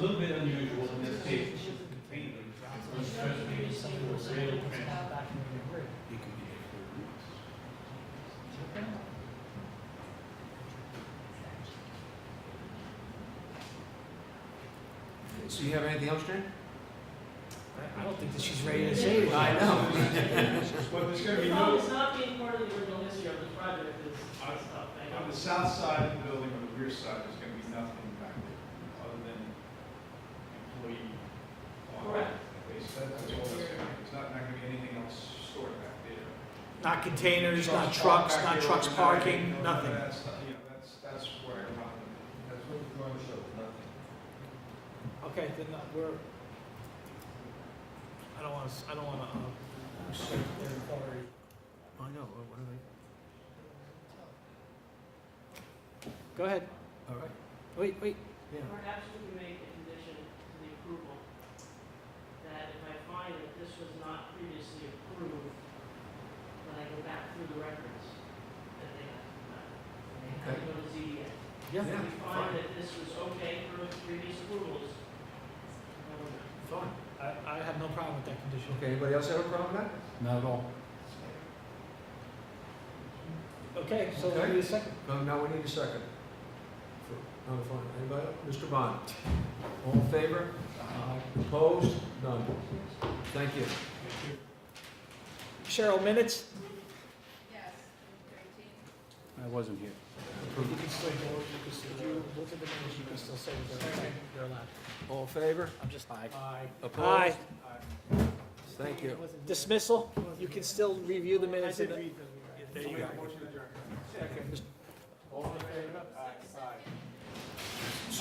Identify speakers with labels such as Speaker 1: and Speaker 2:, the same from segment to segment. Speaker 1: little bit unusual in this case, container, was supposed to be something that was really transparent.
Speaker 2: So you have anything else, Jen?
Speaker 3: I don't think that she's ready to say it.
Speaker 2: I know.
Speaker 1: But there's gonna
Speaker 4: The
Speaker 1: be
Speaker 4: problem
Speaker 1: no,
Speaker 4: is not being part of the original history of the project is our stuff. I
Speaker 1: on
Speaker 4: know.
Speaker 1: the south side of the building, on the rear side, there's gonna be nothing back there, other than employee. on
Speaker 4: Correct.
Speaker 1: That's all that's gonna be, there's not, not gonna be anything else stored back there.
Speaker 3: Not containers, not trucks,
Speaker 1: back
Speaker 3: not
Speaker 1: there
Speaker 3: trucks
Speaker 1: overnight,
Speaker 3: parking,
Speaker 1: no, no,
Speaker 3: nothing.
Speaker 1: That's, you know, that's, that's where I'm at.
Speaker 5: That's what the drawing shows, nothing.
Speaker 3: Okay, then uh, we're, I don't want to, I don't want to, uh, restrict their authority.
Speaker 2: I know, what what are
Speaker 3: Go ahead.
Speaker 2: they, all right,
Speaker 3: Wait, wait.
Speaker 2: yeah.
Speaker 4: Perhaps we can make a condition to the approval that if I find that this was not previously approved, when I go back through the records, that they have to come back. They have to go to ZBA.
Speaker 3: Yeah.
Speaker 4: If
Speaker 2: fine.
Speaker 4: we find that this was okay for previous approvals, I will not.
Speaker 2: Fine.
Speaker 3: I, I have no problem with that condition.
Speaker 2: Okay, anybody else have a problem with that? Not at all.
Speaker 3: Okay, so
Speaker 2: Okay.
Speaker 3: we need a second.
Speaker 2: No, now we need a second. For- No, fine, anybody? else? Mr. Bond? All in favor? Opposed? None. Thank you.
Speaker 3: Cheryl, minutes?
Speaker 6: Yes, thirteen.
Speaker 5: I wasn't here.
Speaker 3: You can still go, you can still, if you look at the minutes, you can still say that they're, they're allowed.
Speaker 2: All in favor?
Speaker 3: I'm just. Aye.
Speaker 2: Opposed?
Speaker 3: Aye.
Speaker 2: Thank you.
Speaker 3: Dismissal, you can still review the minutes. I did read There you go.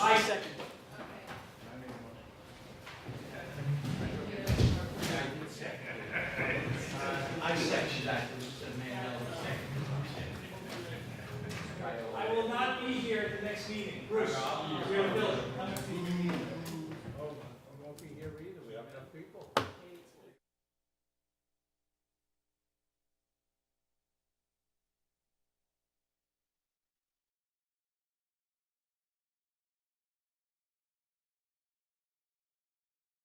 Speaker 3: I second.
Speaker 4: I will not be here at the next meeting. Bruce.